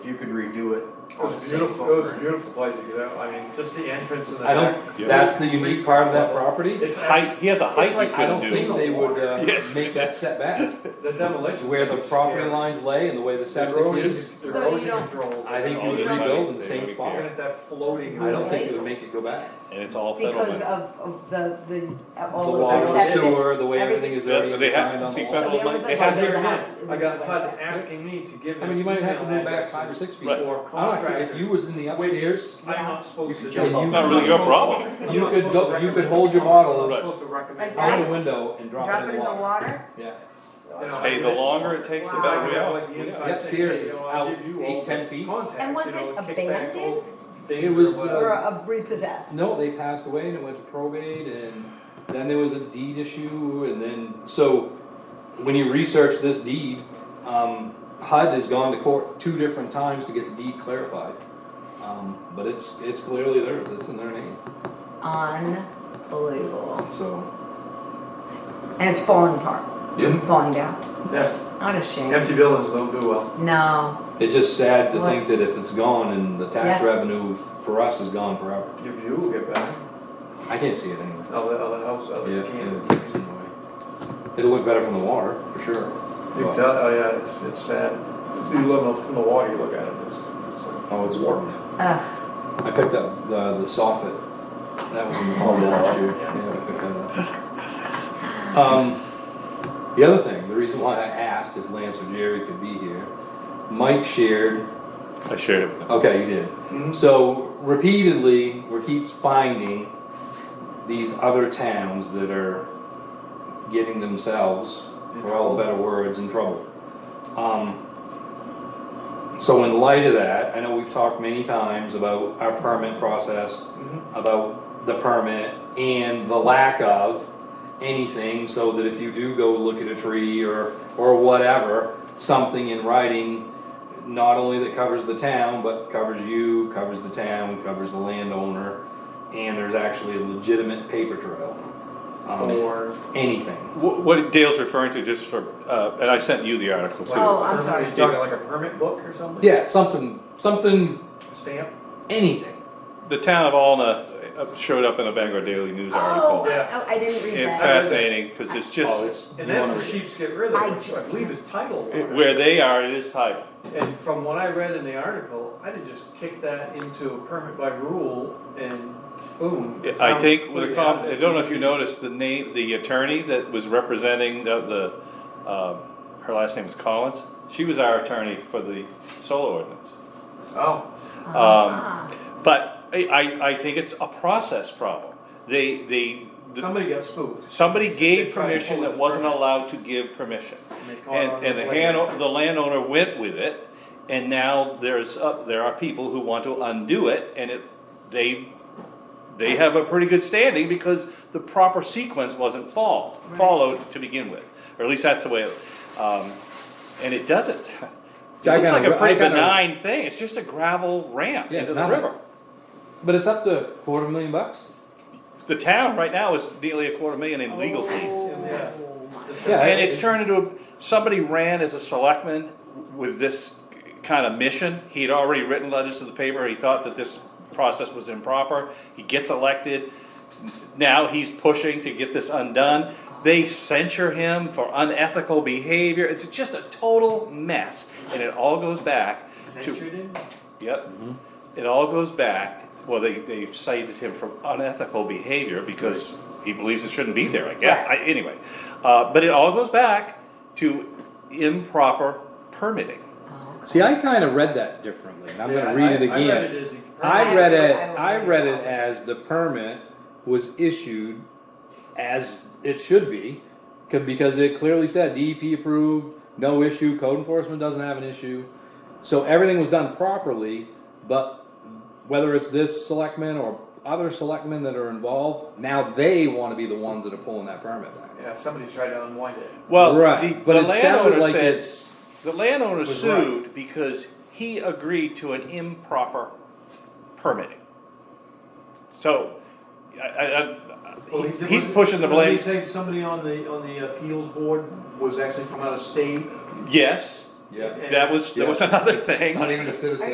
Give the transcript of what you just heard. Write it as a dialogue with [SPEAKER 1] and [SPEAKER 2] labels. [SPEAKER 1] If you could redo it.
[SPEAKER 2] It was a beautiful, it was a beautiful place to get out, I mean, just the entrance and the
[SPEAKER 3] I
[SPEAKER 2] back.
[SPEAKER 3] don't, that's the unique part of that property.
[SPEAKER 2] It's
[SPEAKER 4] Height,
[SPEAKER 2] actually,
[SPEAKER 4] he has a height
[SPEAKER 2] It's
[SPEAKER 4] he
[SPEAKER 2] like-
[SPEAKER 3] I don't
[SPEAKER 4] couldn't do.
[SPEAKER 3] think they would, uh,
[SPEAKER 4] Yes.
[SPEAKER 3] make that setback,
[SPEAKER 2] the demolition.
[SPEAKER 3] where the property lines lay and the way the
[SPEAKER 2] The
[SPEAKER 3] septic
[SPEAKER 2] erosion,
[SPEAKER 3] is.
[SPEAKER 2] the
[SPEAKER 5] So you
[SPEAKER 2] erosion
[SPEAKER 5] don't-
[SPEAKER 2] controls.
[SPEAKER 3] I think
[SPEAKER 2] and
[SPEAKER 3] you
[SPEAKER 2] all
[SPEAKER 3] would
[SPEAKER 2] that.
[SPEAKER 3] rebuild in the
[SPEAKER 4] They
[SPEAKER 3] same
[SPEAKER 4] wouldn't
[SPEAKER 3] spot.
[SPEAKER 2] Looking
[SPEAKER 4] care.
[SPEAKER 2] at that floating.
[SPEAKER 3] I don't think it would make it go back.
[SPEAKER 4] And it's all
[SPEAKER 5] Because
[SPEAKER 4] settlement.
[SPEAKER 5] of, of the, the,
[SPEAKER 3] The
[SPEAKER 5] all
[SPEAKER 3] water,
[SPEAKER 5] of
[SPEAKER 2] water,
[SPEAKER 5] the
[SPEAKER 3] the
[SPEAKER 5] sediment.
[SPEAKER 3] sewer, the way everything is already
[SPEAKER 4] They- they have-
[SPEAKER 3] designed on the
[SPEAKER 4] see,
[SPEAKER 3] wall.
[SPEAKER 5] So the only
[SPEAKER 4] They
[SPEAKER 5] place
[SPEAKER 4] have
[SPEAKER 5] I've ever
[SPEAKER 4] here
[SPEAKER 5] had.
[SPEAKER 2] I got HUD asking me to give
[SPEAKER 3] I
[SPEAKER 2] him.
[SPEAKER 3] mean, you might have to
[SPEAKER 2] email
[SPEAKER 3] move back
[SPEAKER 2] addresses
[SPEAKER 3] five or six feet.
[SPEAKER 4] Right.
[SPEAKER 2] For
[SPEAKER 3] I don't know, if
[SPEAKER 2] contractors.
[SPEAKER 3] you was in the upstairs,
[SPEAKER 2] I'm not supposed to.
[SPEAKER 1] You could
[SPEAKER 2] do.
[SPEAKER 1] jump off.
[SPEAKER 3] It's
[SPEAKER 4] not really your problem.
[SPEAKER 3] You could go- you could hold your bottle.
[SPEAKER 2] I'm not
[SPEAKER 4] Right.
[SPEAKER 2] supposed to recommend.
[SPEAKER 5] Like
[SPEAKER 3] out
[SPEAKER 5] that?
[SPEAKER 3] the window and drop
[SPEAKER 5] Drop
[SPEAKER 3] it
[SPEAKER 5] it in the water?
[SPEAKER 3] Yeah,
[SPEAKER 4] Hey, the longer it takes, the better we are.
[SPEAKER 3] The upstairs is out eight, 10 feet.
[SPEAKER 5] And was it abandoned?
[SPEAKER 3] It was,
[SPEAKER 5] Or
[SPEAKER 3] uh,
[SPEAKER 5] a repossessed?
[SPEAKER 3] no, they passed away and it went to probate and then there was a deed issue and then, so when you research this deed, um, HUD has gone to court two different times to get the deed clarified. Um, but it's, it's clearly theirs, it's in their name,
[SPEAKER 5] Unbelievable.
[SPEAKER 3] so.
[SPEAKER 5] And it's falling apart,
[SPEAKER 3] Yeah.
[SPEAKER 5] falling down.
[SPEAKER 2] Yeah,
[SPEAKER 5] What a shame.
[SPEAKER 2] empty buildings don't do well.
[SPEAKER 5] No,
[SPEAKER 3] It's just sad to
[SPEAKER 5] What?
[SPEAKER 3] think that if it's gone and the tax
[SPEAKER 5] Yeah.
[SPEAKER 3] revenue for us is gone forever.
[SPEAKER 2] Your view will get better,
[SPEAKER 3] I can't see it anyway.
[SPEAKER 2] other, other houses,
[SPEAKER 3] Yeah,
[SPEAKER 2] others
[SPEAKER 3] yeah,
[SPEAKER 2] can't.
[SPEAKER 3] the deed's in the way. It'll look better from the water, for sure.
[SPEAKER 2] You can
[SPEAKER 3] But-
[SPEAKER 2] tell, oh yeah, it's, it's sad. You look from the water, you look at it, it's, it's like.
[SPEAKER 3] Oh, it's warped.
[SPEAKER 5] ugh,
[SPEAKER 3] I picked up the, the soffit. That was in the fall of last year. Yeah, I picked that up. Um, the other thing, the reason why I asked if Lance or Jerry could be here, Mike shared,
[SPEAKER 4] I shared it with them.
[SPEAKER 3] okay, you did.
[SPEAKER 2] Mhm.
[SPEAKER 3] So repeatedly, we're keeps finding these other towns that are getting themselves, for all better words, in trouble. Um, so in light of that, I know we've talked many times about our permit process, about the permit and the lack of anything, so that if you do go look at a tree or, or whatever, something in writing, not only that covers the town, but covers you, covers the town, covers the landowner, and there's actually a legitimate paper trail. Um,
[SPEAKER 2] Or.
[SPEAKER 3] anything.
[SPEAKER 4] Wh- What Dale's referring to, just for, uh, and I sent you the article too.
[SPEAKER 5] Oh, I'm sorry.
[SPEAKER 2] Are you talking like a permit book or something?
[SPEAKER 3] Yeah, something, something,
[SPEAKER 2] Stamp?
[SPEAKER 3] anything.
[SPEAKER 4] The town of Alna uh, showed up in a Bangor Daily News
[SPEAKER 5] oh,
[SPEAKER 4] article.
[SPEAKER 5] I- I, I didn't read
[SPEAKER 4] It's
[SPEAKER 5] that.
[SPEAKER 4] fascinating, because it's
[SPEAKER 3] Oh,
[SPEAKER 4] just,
[SPEAKER 3] it's-
[SPEAKER 2] And
[SPEAKER 3] you
[SPEAKER 2] that's the
[SPEAKER 3] wanna read it.
[SPEAKER 2] Sheep's Get Rid
[SPEAKER 5] I
[SPEAKER 2] of, which I
[SPEAKER 5] just-
[SPEAKER 2] believe is titled.
[SPEAKER 4] it- where they are, it is tight.
[SPEAKER 2] And from what I read in the article, I'd have just kicked that into a permit by rule and boom.
[SPEAKER 4] I think, with
[SPEAKER 2] Town
[SPEAKER 4] a com- I
[SPEAKER 2] completely
[SPEAKER 4] don't know if
[SPEAKER 2] out
[SPEAKER 4] you
[SPEAKER 2] of it.
[SPEAKER 4] noticed, the name, the attorney that was representing the, the, um, her last name is Collins, she was our attorney for the solar ordinance.
[SPEAKER 2] Oh,
[SPEAKER 5] Ah.
[SPEAKER 4] But I, I, I think it's a process problem. They, they, the-
[SPEAKER 2] somebody got spooked.
[SPEAKER 4] somebody
[SPEAKER 2] They
[SPEAKER 4] gave
[SPEAKER 2] tried to
[SPEAKER 4] permission
[SPEAKER 2] pull
[SPEAKER 4] that
[SPEAKER 2] it.
[SPEAKER 4] wasn't allowed to give permission.
[SPEAKER 2] And they caught on
[SPEAKER 4] And, and the
[SPEAKER 2] it
[SPEAKER 4] hand,
[SPEAKER 2] later.
[SPEAKER 4] the landowner went with it, and now there's, uh, there are people who want to undo it, and it, they, they have a pretty good standing because the proper sequence wasn't followed, followed to begin with, or at least that's the way, it- um, and it doesn't. It
[SPEAKER 3] Yeah, I
[SPEAKER 4] looks
[SPEAKER 3] got
[SPEAKER 4] like
[SPEAKER 3] a-
[SPEAKER 4] a
[SPEAKER 3] I
[SPEAKER 4] pretty
[SPEAKER 3] got a-
[SPEAKER 4] benign thing, it's just a gravel ramp
[SPEAKER 3] Yeah, it's
[SPEAKER 4] into the
[SPEAKER 3] nothing.
[SPEAKER 4] river.
[SPEAKER 3] But it's up to quarter million bucks.
[SPEAKER 4] The town right now is nearly a quarter million in legal fees.
[SPEAKER 2] Yeah.
[SPEAKER 5] Oh, my.
[SPEAKER 2] Just-
[SPEAKER 3] Yeah,
[SPEAKER 4] And it's turned into, a- somebody ran as a selectman with this kind of mission. He had already written letters to the paper, he thought that this process was improper, he gets elected. Now he's pushing to get this undone. They censure him for unethical behavior. It's just a total mess. And it all goes back to,
[SPEAKER 2] Censured him?
[SPEAKER 4] yep. It all goes back, well, they, they've cited him for unethical behavior because he believes it shouldn't be there, I guess, I, anyway. Uh, but it all goes back to improper permitting.
[SPEAKER 5] Oh, okay.
[SPEAKER 3] See, I kind of read that differently, and I'm
[SPEAKER 2] Yeah,
[SPEAKER 3] gonna read it
[SPEAKER 2] I- I read
[SPEAKER 3] again.
[SPEAKER 2] it as a
[SPEAKER 3] I
[SPEAKER 5] I
[SPEAKER 3] read
[SPEAKER 5] would-
[SPEAKER 3] it,
[SPEAKER 5] I
[SPEAKER 3] I
[SPEAKER 5] would
[SPEAKER 3] read
[SPEAKER 5] read
[SPEAKER 3] it as the permit was issued as it should be, c- because it clearly said DEP approved, no issue, code enforcement doesn't have an issue. So everything was done properly, but whether it's this selectman or other selectmen that are involved, now they wanna be the ones that are pulling that permit back.
[SPEAKER 2] Yeah, somebody tried to unwind it.
[SPEAKER 4] Well, the,
[SPEAKER 3] Right, but
[SPEAKER 4] the
[SPEAKER 3] it sounded
[SPEAKER 4] landowner
[SPEAKER 3] like
[SPEAKER 4] said,
[SPEAKER 3] it's,
[SPEAKER 4] the landowner
[SPEAKER 3] was right.
[SPEAKER 4] sued because he agreed to an improper permitting. So, I, I,
[SPEAKER 2] Well,
[SPEAKER 4] I,
[SPEAKER 2] he-
[SPEAKER 4] he's
[SPEAKER 2] wasn't-
[SPEAKER 4] pushing the
[SPEAKER 2] wasn't he
[SPEAKER 4] blame.
[SPEAKER 2] saying somebody on the, on the appeals board was actually from out of state?
[SPEAKER 4] Yes, yeah.
[SPEAKER 6] And-
[SPEAKER 3] That was, that was another thing.
[SPEAKER 4] Not even a citizen.